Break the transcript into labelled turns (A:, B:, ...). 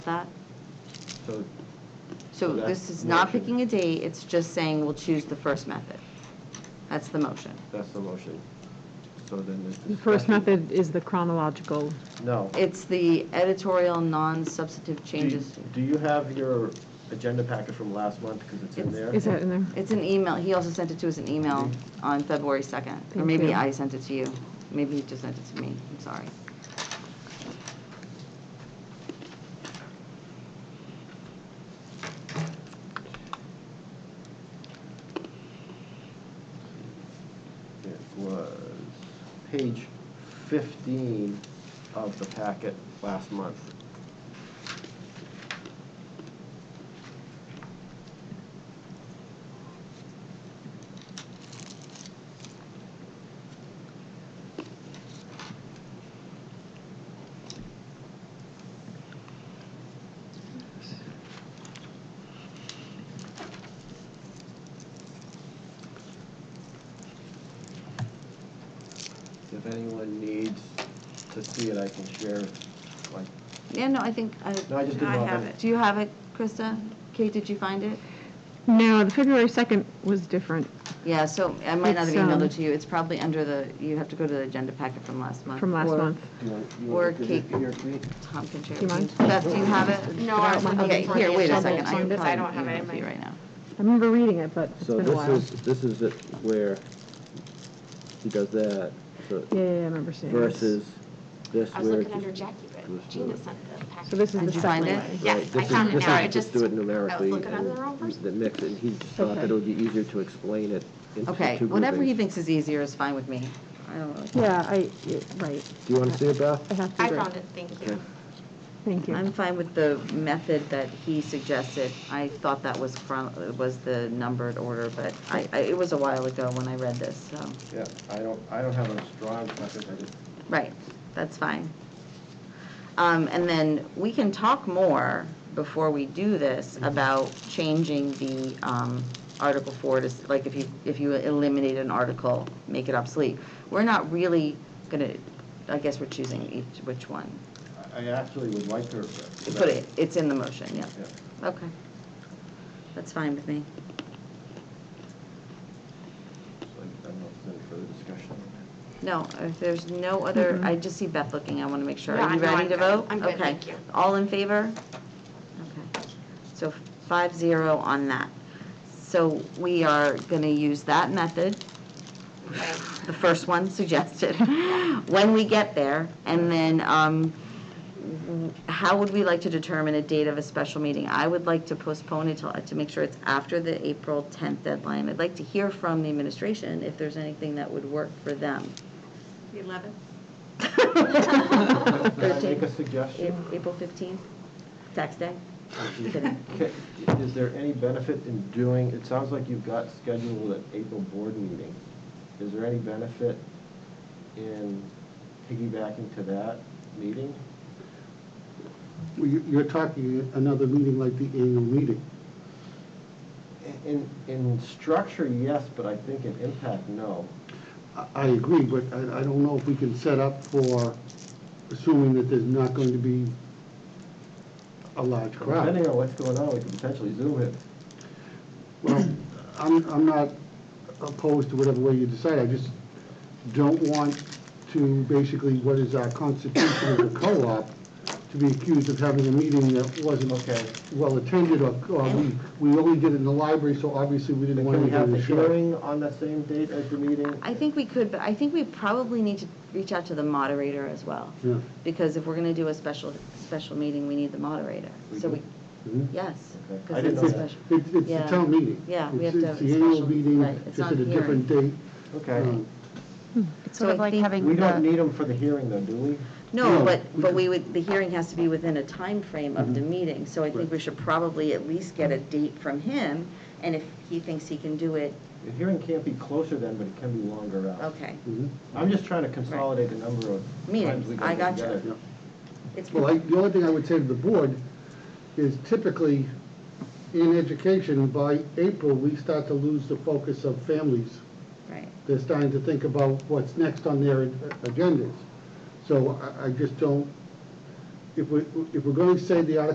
A: that?
B: So
A: So
B: That
A: this is not
B: motion.
A: picking a date, it's just saying we'll choose the first method. That's the motion.
B: that's the motion. So then there's
C: The first
B: discussion.
C: method is the chronological.
B: No.
A: It's the editorial non-substantive
B: Do-
A: changes.
B: Do you have your agenda packet from last month, because it's in
A: It's-
B: there?
C: Is that in there?
A: It's an email, he also sent it to us in email
B: Mm-hmm.
A: on February 2nd. Or
C: Thank
A: maybe
C: you.
A: I sent it to you. Maybe he just sent it to me, I'm sorry.
B: It was page 15 of the packet last month. If anyone needs to see it, I can share, like,
A: Yeah, no, I think, I-
B: no, I just didn't
D: I
B: know. if
D: have it.
A: do you have it, Krista? Kate, did you find it?
C: No, the February 2nd was different
A: Yeah, so I might not have
C: It's,
A: emailed
C: um,
A: it to you. It's probably under the, you have to go to the agenda packet from last month.
C: from last
A: Or
C: month.
B: Do you want- you
A: Or
B: want to look at it
A: Kate.
B: here, Kate?
A: Tom can share.
C: Do you mind?
A: Beth, do you have it?
D: No, I was looking
A: Okay,
D: for
A: here,
D: the
A: wait a
D: agenda
A: second. I
D: too,
A: can
D: 'cause I don't
A: probably
D: have it
A: email
D: in
A: it
D: my-
A: to you right now.
C: I remember reading it, but it's
E: So
C: been a
E: this
C: while.
E: is, this is it where he does that so-
C: Yeah, yeah, yeah, I remember seeing it.
E: versus this where.
D: I was looking
E: it
D: under
E: just-
D: Jackie,
E: Let's
D: but
E: do
D: Gina
E: it.
D: sent the packet.
C: So this is
A: Did
C: the
A: you
C: second
A: find it?
C: way.
D: Yes,
E: Right,
D: I
E: this is-
D: found it
E: this
D: now,
E: is
D: I just-
E: Just do it
D: I
E: numerically.
D: was looking under the wrong
E: and
D: person.
E: That mix, and he just thought that
C: Okay.
E: it would be easier to explain it into
A: Okay,
E: two
A: whatever he
E: groupings.
A: thinks is easier is fine with me. I don't really. care.
C: Yeah, I, yeah, right,
E: Do you want to see it, Beth?
C: I have to
D: I
C: agree.
D: found it, thank you.
C: Thank you.
A: I'm fine with the method that he suggested. I thought that was from, was the numbered order, but I, I- it was a while ago when I read this, so,
B: Yeah, I don't, I don't have a strong preference, I just
A: right, that's fine. Um, and then we can talk more before we do this about changing the, um, Article Four to, s- like, if you, if you eliminate an article, make it obsolete. We're not really gonna, I guess we're choosing each, which one.
B: I- I actually would like to.
A: Put it, it's in the motion, yeah.
B: Yeah.
A: Okay. That's fine with me.
B: So I don't know if there's any further discussion.
A: No, if there's no other, I just see Beth looking, I want to make sure.
D: Mm-hmm. Yeah,
A: Are you
D: no,
A: ready to
D: I'm good.
A: vote?
D: I'm good,
A: Okay.
D: thank you.
A: All in favor? Okay. So five zero on that. So we are going to use that method,
D: Okay.
A: the first one suggested, when we get there. And then um, how would we like to determine a date of a special meeting? I would like to postpone it till, to make sure it's after the April 10th deadline. I'd like to hear from the administration if there's anything that would work for them.
D: The 11th?
B: Can I make
A: Thirteen.
B: a suggestion?
A: A- April 15th, tax day?
B: Okay, Is there any benefit in doing, it sounds like you've got scheduled an April board meeting. Is there any benefit in piggybacking to that meeting?
F: Well, you- You're talking another meeting like the annual meeting.
B: In, in structure, yes, but I think in impact, no.
F: I- I agree, but I I don't know if we can set up for assuming that there's not going to be a large crowd.
B: Depending on what's going on, we could potentially zoom it.
F: Well, I'm I'm not opposed to whatever way you decide, I just don't want to basically, what is our constitution of the co-op, to be accused of having a meeting that wasn't
B: Okay.
F: well-attended, or or we we only did it in the library, so obviously we didn't
B: And
F: want
B: Can
F: to
B: we
F: do
B: have the
F: the show.
B: hearing on the same date as the meeting?
A: I think we could, but I think we probably need to reach out to the moderator as well.
F: Yeah.
A: Because if we're going to do a special, special meeting, we need the moderator.
B: We
A: So
B: do?
A: we,
F: Mhm.
A: yes.
B: Okay.
A: 'cause
B: I didn't
A: it's
B: know
A: a
B: that.
A: special-
F: It's, it's the
A: Yeah.
F: town meeting.
A: Yeah, we
F: It's-
A: have to have a
F: It's the annual
A: special- right,
F: meeting,
A: it's
F: just
A: not
F: at a
A: hearing.
F: different date.
B: Okay.
F: Um,
G: It's
A: So
G: sort of
A: I
G: like
A: think-
G: having
B: We don't
G: the,
B: need them for the hearing though, do we?
A: No,
F: No,
A: but,
F: we
A: but
F: could-
A: we would, the hearing has to be within a time frame of the meeting. So I think
F: Right.
A: we should probably at least get a date from him. And if he thinks he can do it,
B: The hearing can't be closer then, but it can be longer out.
A: okay.
F: mhm.
B: I'm just trying to consolidate the number of times
A: Meetings,
B: we
A: I
B: got
A: gotcha.
B: together.
F: Yeah.
A: It's
F: Well, I, the only thing I would say to the board is typically, in education, by April, we start to lose the focus of families.
A: Right.
F: They're starting to think about what's next on their a- agendas. So I, I just don't, if we, if we're going to say the article